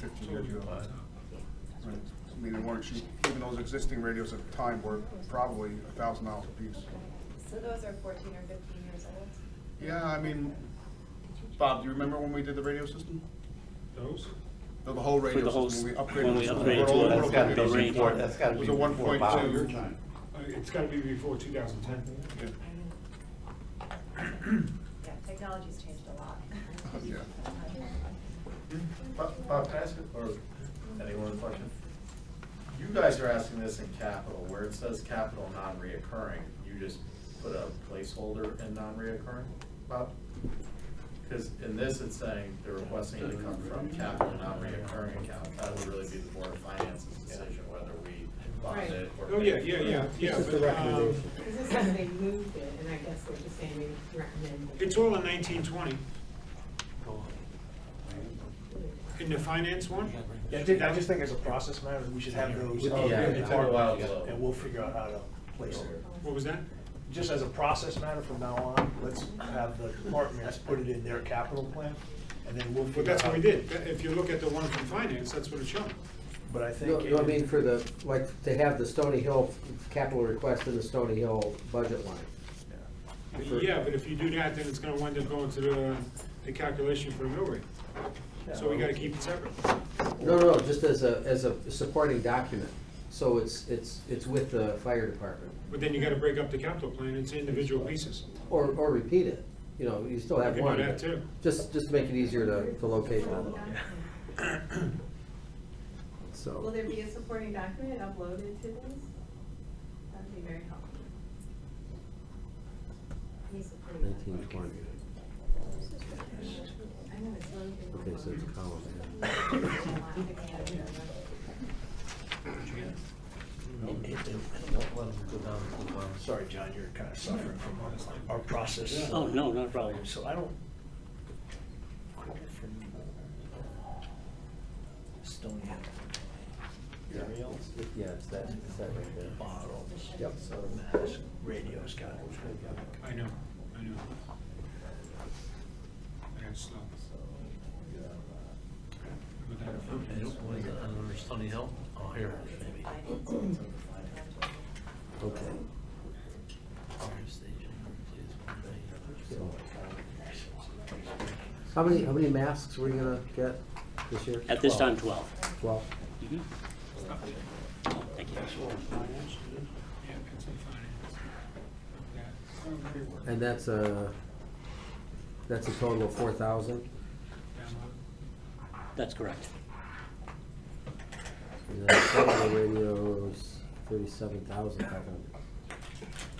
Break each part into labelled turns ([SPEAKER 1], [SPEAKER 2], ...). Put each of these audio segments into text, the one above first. [SPEAKER 1] fifty years ago. Right. I mean, they weren't cheap, even those existing radios at the time were probably a thousand dollars a piece.
[SPEAKER 2] So those are fourteen or fifteen years old?
[SPEAKER 1] Yeah, I mean, Bob, do you remember when we did the radio system?
[SPEAKER 3] Those?
[SPEAKER 1] No, the whole radio
[SPEAKER 4] the whole
[SPEAKER 1] system, when we
[SPEAKER 4] s-
[SPEAKER 1] upgraded.
[SPEAKER 4] when
[SPEAKER 1] the
[SPEAKER 4] we
[SPEAKER 1] system,
[SPEAKER 4] upgraded
[SPEAKER 1] we
[SPEAKER 4] to it.
[SPEAKER 1] all broke
[SPEAKER 4] That's
[SPEAKER 5] That's gotta
[SPEAKER 1] it
[SPEAKER 5] be
[SPEAKER 1] into-
[SPEAKER 5] before, that's gotta
[SPEAKER 1] It was
[SPEAKER 5] be
[SPEAKER 1] a
[SPEAKER 5] before
[SPEAKER 1] 1.2.
[SPEAKER 5] Bob's your time.
[SPEAKER 3] Uh, It's gotta be before 2010.
[SPEAKER 1] Yeah.
[SPEAKER 2] Yeah, technology's changed a lot.
[SPEAKER 1] Oh, Yeah.
[SPEAKER 5] Bob, Bob, can I ask, you- or anyone a question? You guys are asking this in capital, where it says capital non-reoccurring, you just put a placeholder in non-reoccurring, Bob? Because in this, it's saying they're requesting to come from capital non-reoccurring account. That would really be the Board of Finance's decision whether we bond it or.
[SPEAKER 3] Oh, yeah, yeah, yeah, yeah.
[SPEAKER 6] just a
[SPEAKER 3] but, um,
[SPEAKER 6] recommendation.
[SPEAKER 7] Because this is, they moved it, and I guess they're just saying they recommend. that
[SPEAKER 3] It's all in 1920. In the finance one?
[SPEAKER 8] Yeah, I think- I just think as a process matter, we should have those.
[SPEAKER 5] Yeah, it's been a while, so-
[SPEAKER 8] And we'll figure out how to place it.
[SPEAKER 3] What was that?
[SPEAKER 8] Just as a process matter from now on, let's have the departments put it in their capital plan, and then we'll figure
[SPEAKER 3] Well,
[SPEAKER 8] out.
[SPEAKER 3] that's what we did. That- If you look at the one from finance, that's what it showed.
[SPEAKER 8] But I
[SPEAKER 6] No,
[SPEAKER 8] think.
[SPEAKER 6] no, I mean, for the, like, to have the Stony Hill capital request in the Stony Hill budget line.
[SPEAKER 3] Yeah, but if you do that, then it's gonna wind up going to the, the calculation for the mill rate. So we gotta keep it separate.
[SPEAKER 6] No, no, just as a, as a supporting document, so it's, it's, it's with the fire department,
[SPEAKER 3] But then you gotta break up the capital plan into individual pieces.
[SPEAKER 6] or, or repeat it, you know, you still have
[SPEAKER 3] You can do
[SPEAKER 6] one.
[SPEAKER 3] that too.
[SPEAKER 6] Just, just make it easier to, to locate them,
[SPEAKER 7] Will
[SPEAKER 6] so.
[SPEAKER 7] there be a supporting document uploaded to this? That'd be very helpful. Any supporting
[SPEAKER 6] Nineteen
[SPEAKER 7] document?
[SPEAKER 6] twenty,
[SPEAKER 7] I know it's loaded.
[SPEAKER 6] okay, so it's a column.
[SPEAKER 8] Sorry, John, you're kind of suffering from our process.
[SPEAKER 4] Oh, no, not a problem.
[SPEAKER 8] So I don't. Stony Hill. Anything else?
[SPEAKER 6] Yeah, it's that, it's that right there.
[SPEAKER 8] Bottle.
[SPEAKER 6] Yep.
[SPEAKER 8] So mask, radio's got it.
[SPEAKER 3] I know, I know. I got slow. But that-
[SPEAKER 9] Stony Hill? Oh, here, maybe.
[SPEAKER 6] Okay,
[SPEAKER 9] Fire station, please, one day.
[SPEAKER 6] so. How many, how many masks were you gonna get this year?
[SPEAKER 4] At this time, 12.
[SPEAKER 6] Twelve.
[SPEAKER 4] Mhm. Oh, Thank you.
[SPEAKER 3] Yeah, it's in finance. Yeah.
[SPEAKER 6] And that's a, that's a total of four thousand,
[SPEAKER 3] Download.
[SPEAKER 4] That's correct.
[SPEAKER 6] and then cellular radios, thirty-seven thousand five hundred.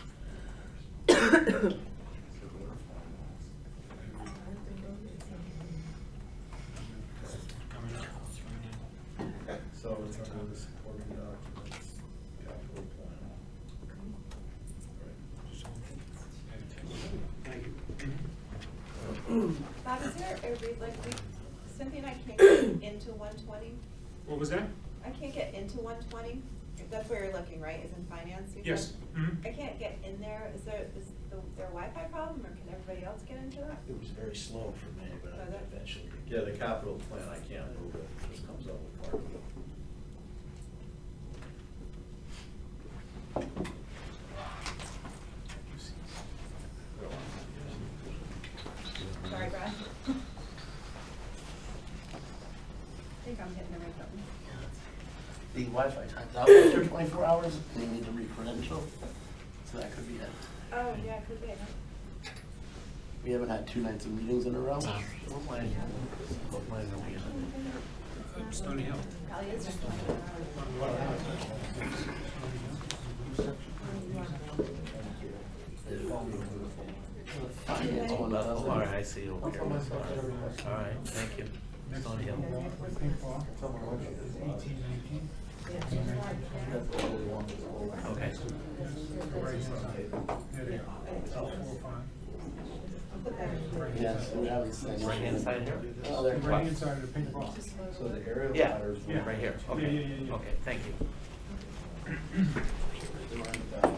[SPEAKER 3] Coming up, it's coming in.
[SPEAKER 5] So it's under the supporting documents, capital plan.
[SPEAKER 3] Mm-hmm.
[SPEAKER 2] Bob, is there a, re- like, we, Cynthia and I can't get into one twenty?
[SPEAKER 3] What was that?
[SPEAKER 2] I can't get into one twenty? That's where you're looking, right, is in finance? you
[SPEAKER 3] Yes.
[SPEAKER 2] said?
[SPEAKER 3] Mhm.
[SPEAKER 2] I can't get in there. Is there, is the- there a Wi-Fi problem, or can everybody else get into it?
[SPEAKER 8] It was very slow for me, but I eventually.
[SPEAKER 5] Yeah, the capital plan, I can't move it, it just comes up with part of it.
[SPEAKER 2] Sorry, Brad. I think I'm hitting the right button.
[SPEAKER 9] The Wi-Fi times out after twenty-four hours, they need to re-credential, so that could be it.
[SPEAKER 2] Oh, yeah, could be.
[SPEAKER 9] We haven't had two nights of meetings in a row. So we're playing. We're playing a weekend.
[SPEAKER 3] Stony Hill.
[SPEAKER 2] Probably is just one.
[SPEAKER 9] Finance one up. All right, I see, over here. All right, thank you. Stony Hill. Okay.
[SPEAKER 5] Yes, we have this thing.
[SPEAKER 9] Right hand side here?
[SPEAKER 5] Oh, there.
[SPEAKER 3] Right inside of the pink box.
[SPEAKER 5] So the aerial
[SPEAKER 9] Yeah,
[SPEAKER 5] ladders.
[SPEAKER 3] Yeah.
[SPEAKER 9] right here,
[SPEAKER 3] Yeah,
[SPEAKER 9] okay,
[SPEAKER 3] yeah, yeah, yeah.
[SPEAKER 9] okay, thank you.
[SPEAKER 5] Right, uh,